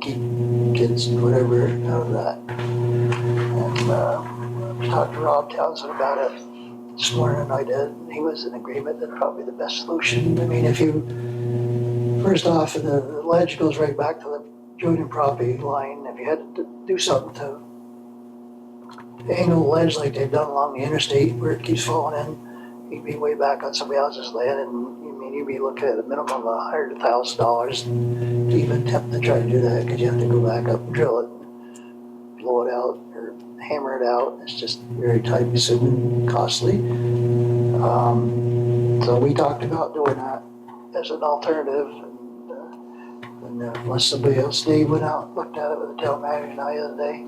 keep kids, whatever, out of that. And uh, I talked to Rob Townsend about it this morning, I did, and he was in agreement that probably the best solution, I mean, if you, first off, the ledge goes right back to the joint and property line, if you had to do something to angle the ledge like they've done along the interstate where it keeps falling in, he'd be way back on somebody else's land and, I mean, you'd be looking at a minimum of a hundred thousand dollars to even attempt to try to do that, cause you have to go back up and drill it, blow it out or hammer it out, it's just very time consuming, costly. Um, so we talked about doing that as an alternative and, uh, and uh, unless somebody else, Dave went out, and looked at it with the town manager the other day.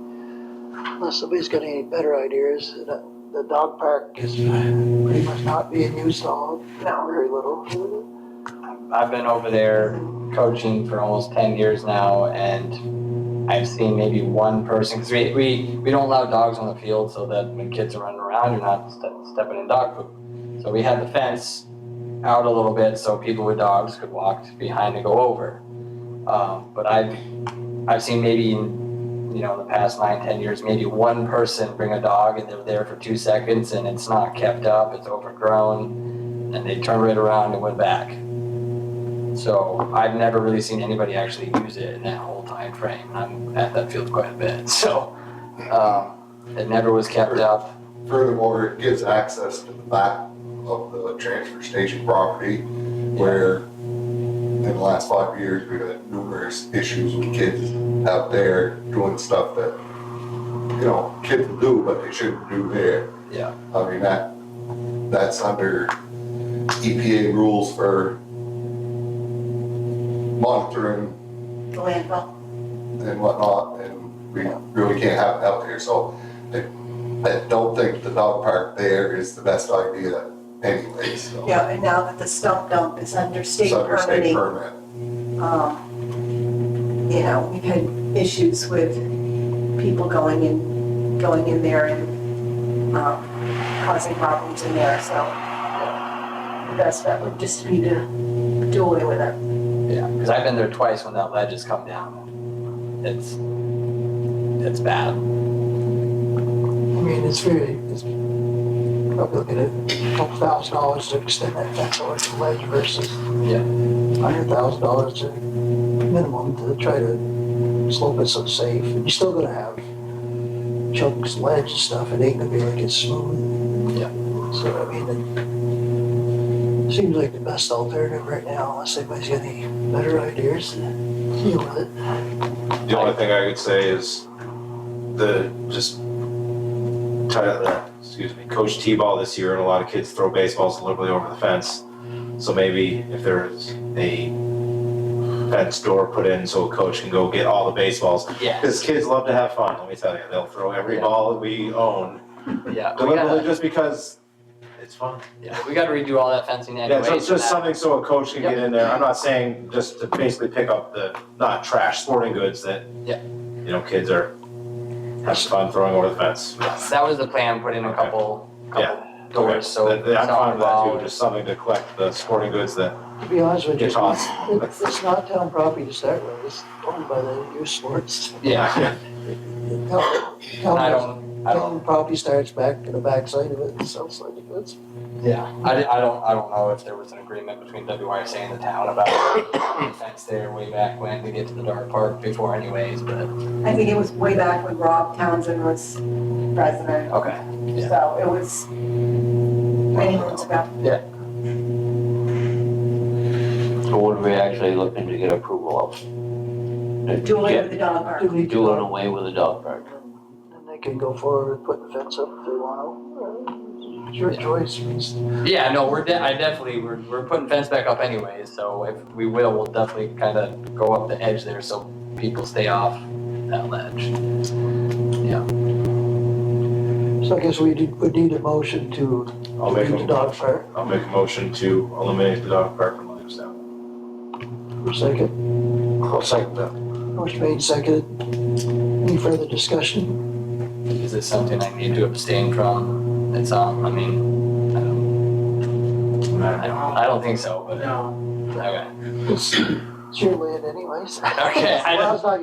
Unless somebody's got any better ideas, the, the dog park is pretty much not being used all, now very little. I've been over there coaching for almost ten years now, and I've seen maybe one person because we, we we don't allow dogs on the field so that when kids are running around, you're not ste- stepping in dog poop. So we had the fence out a little bit so people with dogs could walk behind and go over. Um, but I've I've seen maybe in, you know the past nine ten years maybe one person bring a dog and they're there for two seconds and it's not kept up, it's overgrown, and they turn right around and went back. So I've never really seen anybody actually use it in that whole time frame. I'm at that field quite a bit, so um, it never was kept up. Furthermore, it gives access to the back of the transfer station property where in the last five years, we've had numerous issues with kids out there doing stuff that, you know, kids will do, but they shouldn't do there. Yeah. I mean, that, that's under EPA rules for monitoring landfill. and whatnot, and we really can't have it out there, so I, I don't think the dog park there is the best idea anyway. so. Yeah, and now that the stump dump is under state It's under state permitting, permit. um, you know, we've had issues with people going in, going in there and, um, causing problems in there, so the best bet would just be to do away with it. Yeah, because I've been there twice when that ledge has come down. It's it's bad. I mean, it's very, it's probably looking at a couple thousand dollars to extend that fence over to the ledge versus Yeah. hundred thousand dollars to minimum to try to slope it so it's safe. And you're still gonna have chunks, ledge and stuff. It ain't gonna be like it's smooth. Yeah. So I mean, it seems like the best alternative right now, unless anybody's got any better ideas to deal with it. The only thing I could say is the just tie uh, excuse me, coach T-ball this year, and a lot of kids throw baseballs deliberately over the fence. So maybe if there's a fence door put in, so a coach can go get all the baseballs. Yeah. Because kids love to have fun. Let me tell you, they'll throw every Yeah. ball we own Yeah. We deliberately gotta, just because it's fun. yeah, we gotta redo all that fencing anyway. Yeah, so it's just something so a coach can Yep. get in there. I'm not saying just to basically pick up the not trash sporting goods that, Yeah. you know, kids are having fun throwing over the fence. That was the plan. Put in a couple couple doors Okay, so that- that- I'm it's not fine with that involved. too, just something to collect the sporting goods that To be honest with you, get tossed. It's it's not town property to start with, it's owned by the youth sports. Yeah. Town- And I Town don't. I don't. town property starts back to the backside of it, the south side of it. Yeah, I, I don't, I don't know if there was an agreement between WYSA and the town about the fence there way back when to get to the dart park before anyways, but, I think it was way back when Rob Townsend was president, okay. Yeah. so it was many moons ago. So what are we actually looking to get approval of? Do away Yeah, with the dog park. Do we do Doing it? away with the dog park. And they can go forward and put the fence up if they want to. It's your choice, it's Yeah, no, we're, de- I definitely, we're, we're putting fence back up anyways, so if we will, we'll definitely kind of go up the edge there so people stay off that ledge. So I guess we do- would need a motion to I'll make, leave the a- dog park I'll make a motion to eliminate the dog park from Williamstown. for a second. I'll second that. Motion made, seconded. Any further discussion? Is this something I need to abstain from? It's, um, I mean, I don't, I don't, I don't think so, but. No. Okay, It's it's your land anyways. okay, I Well, don't. it's not